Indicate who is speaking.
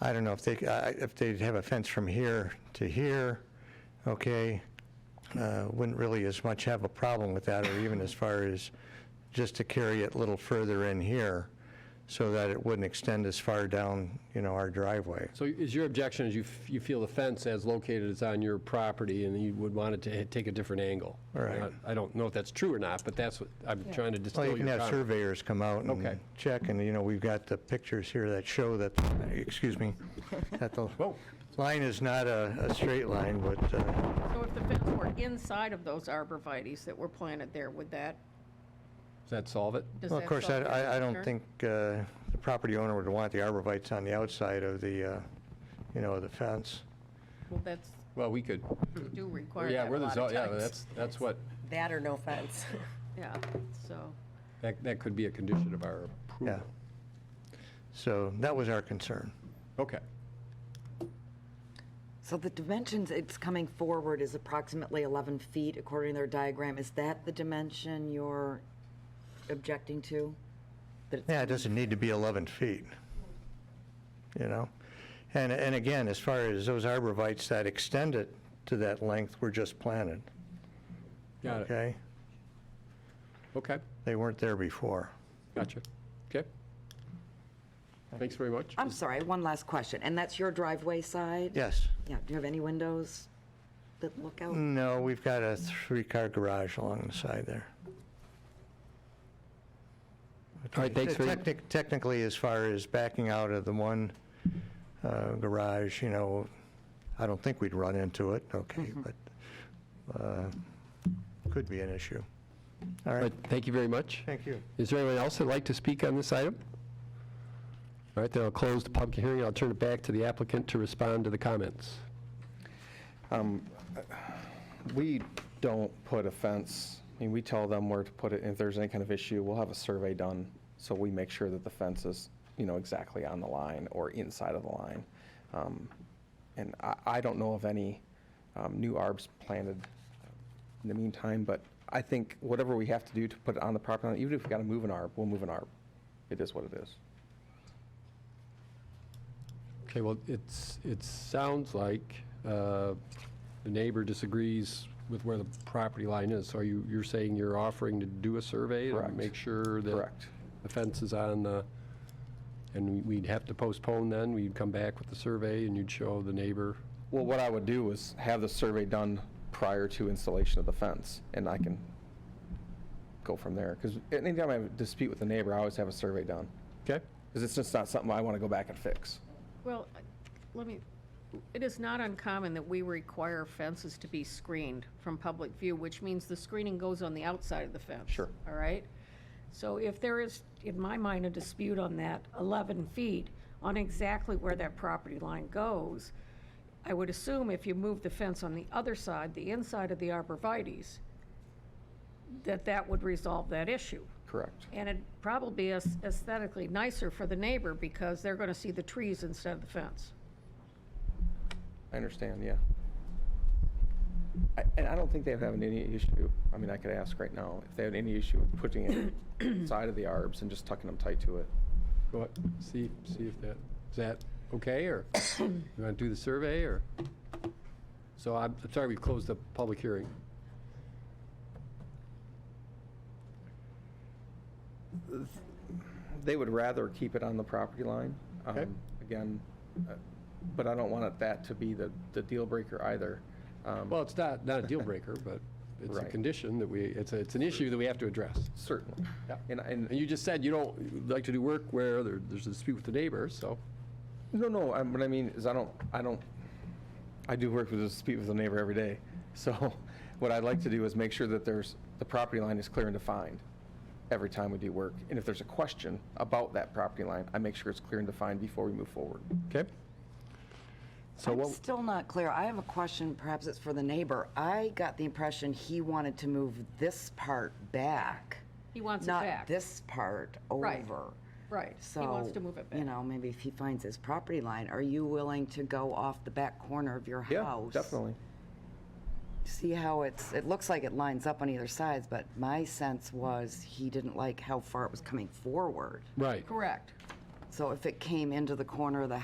Speaker 1: I don't know if they, I- if they'd have a fence from here to here, okay, uh, wouldn't really as much have a problem with that, or even as far as just to carry it a little further in here, so that it wouldn't extend as far down, you know, our driveway.
Speaker 2: So is your objection is you, f- you feel the fence as located is on your property and you would want it to ha- take a different angle?
Speaker 1: Right.
Speaker 2: Uh, I don't know if that's true or not, but that's what, I'm trying to distill
Speaker 1: Well, you
Speaker 2: your
Speaker 1: can have
Speaker 2: comment.
Speaker 1: surveyors come out
Speaker 2: Okay.
Speaker 1: and check, and, you know, we've got the pictures here that show that, excuse me, that the
Speaker 2: Whoa.
Speaker 1: line is not a, a straight line, but, uh,
Speaker 3: So if the fence were inside of those arborvitæs that were planted there, would that,
Speaker 2: Does that solve it?
Speaker 3: does that?
Speaker 1: well, of course, I,
Speaker 3: solve your
Speaker 1: I- I don't
Speaker 3: concern?
Speaker 1: think uh, the property owner would want the arborvitae's on the outside of the, uh, you know, the fence.
Speaker 3: Well, that's,
Speaker 2: Well, we could,
Speaker 3: we do require
Speaker 2: yeah,
Speaker 3: that a
Speaker 2: we're the,
Speaker 3: lot
Speaker 2: zo-
Speaker 3: of
Speaker 2: yeah,
Speaker 3: times.
Speaker 2: that's, that's what,
Speaker 4: That or no fence.
Speaker 3: Yeah, so,
Speaker 2: that, that could be a condition of our
Speaker 1: Yeah.
Speaker 2: approval.
Speaker 1: So that was our concern.
Speaker 2: Okay.
Speaker 4: So the dimensions it's coming forward is approximately 11 feet according to their diagram. Is that the dimension you're objecting to? That it's-
Speaker 1: Yeah, it doesn't need to be 11 feet, you know? And, and again, as far as those arborvitae's that extend it to that length were just planted,
Speaker 2: Got it.
Speaker 1: okay?
Speaker 2: Okay,
Speaker 1: They weren't there before.
Speaker 2: gotcha. Okay. Thanks very much.
Speaker 4: I'm sorry, one last question, and that's your driveway side?
Speaker 1: Yes.
Speaker 4: Yeah, do you have any windows that look out?
Speaker 1: No, we've got a three-car garage along the side there.
Speaker 5: All right, thanks for,
Speaker 1: Technic- Technically, as far as backing out of the one uh, garage, you know, I don't think we'd run into it, okay,
Speaker 5: Mm-hmm.
Speaker 1: but uh, could be an issue. All
Speaker 5: but
Speaker 1: right,
Speaker 5: thank you very much.
Speaker 1: thank you.
Speaker 5: Is there anyone else that'd like to speak on this item? All right, then I'll close the public hearing, I'll turn it back to the applicant to respond to the comments.
Speaker 6: We don't put a fence, I mean, we tell them where to put it, and if there's any kind of issue, we'll have a survey done, so we make sure that the fence is, you know, exactly on the line or inside of the line. Um, And I, I don't know of any um, new arbs planted in the meantime, but I think whatever we have to do to put it on the property line, even if we gotta move an arb, we'll move an arb. It is what it is.
Speaker 2: Okay, well, it's, it sounds like uh, the neighbor disagrees with where the property line is. So are you, you're saying you're offering to do a survey? to
Speaker 6: Correct.
Speaker 2: Make sure that.
Speaker 6: Correct.
Speaker 2: The fence is on the, and we- we'd have to postpone then, we'd come back with the survey and you'd show the neighbor.
Speaker 6: Well, what I would do is have the survey done prior to installation of the fence, and I can go from there. Because anytime I have a dispute with a neighbor, I always have a survey done,
Speaker 2: Okay?
Speaker 6: because it's just not something I want to go back and fix.
Speaker 3: well, I- let me, it is not uncommon that we require fences to be screened from public view, which means the screening goes on the outside of the fence.
Speaker 6: Sure.
Speaker 3: All right? So if there is, in my mind, a dispute on that 11 feet, on exactly where that property line goes, I would assume if you move the fence on the other side, the inside of the arborvitae's, that that would resolve that issue.
Speaker 6: Correct.
Speaker 3: And it'd probably be as- aesthetically nicer for the neighbor because they're going to see the trees instead of the fence.
Speaker 6: I understand, yeah. I- And I don't think they have any issue, I mean, I could ask right now, if they have any issue with putting it inside of the arbs and just tucking them tight to it.
Speaker 2: Go ahead, see, see if that, is that okay, or you want to do the survey, or? So I'm I'm sorry we closed the public hearing.
Speaker 6: They would rather keep it on the property line.
Speaker 2: Okay.
Speaker 6: um, Again, uh, but I don't want it- that to be the, the deal breaker either. Um,
Speaker 2: Well, it's not, not a deal breaker, but it's a
Speaker 6: Right.
Speaker 2: condition that we, it's, a- it's an issue that we have to address.
Speaker 6: Certainly.
Speaker 2: Yeah.
Speaker 6: And,
Speaker 2: And
Speaker 6: and,
Speaker 2: you just said you don't like to do work where there- there's a dispute with the neighbor, so,
Speaker 6: no, no, I'm- what I mean is I don't, I don't, I do work with, a dispute with the neighbor every day. So what I'd like to do is make sure that there's, the property line is clear and defined every time we do work. And if there's a question about that property line, I make sure it's clear and defined before we move forward.
Speaker 2: okay? So
Speaker 4: I'm
Speaker 2: what,
Speaker 4: still not clear. I have a question, perhaps it's for the neighbor. I got the impression he wanted to move this part back,
Speaker 3: He wants it
Speaker 4: not
Speaker 3: back.
Speaker 4: this part
Speaker 3: Right.
Speaker 4: over.
Speaker 3: Right, he
Speaker 4: So,
Speaker 3: wants to move it
Speaker 4: you
Speaker 3: back.
Speaker 4: know, maybe if he finds his property line, are you willing to go off the back corner of your
Speaker 6: Yeah,
Speaker 4: house?
Speaker 6: definitely.
Speaker 4: See how it's, it looks like it lines up on either sides, but my sense was he didn't like how far it was coming forward.
Speaker 2: right.
Speaker 3: Correct.
Speaker 4: So if it came into the corner of the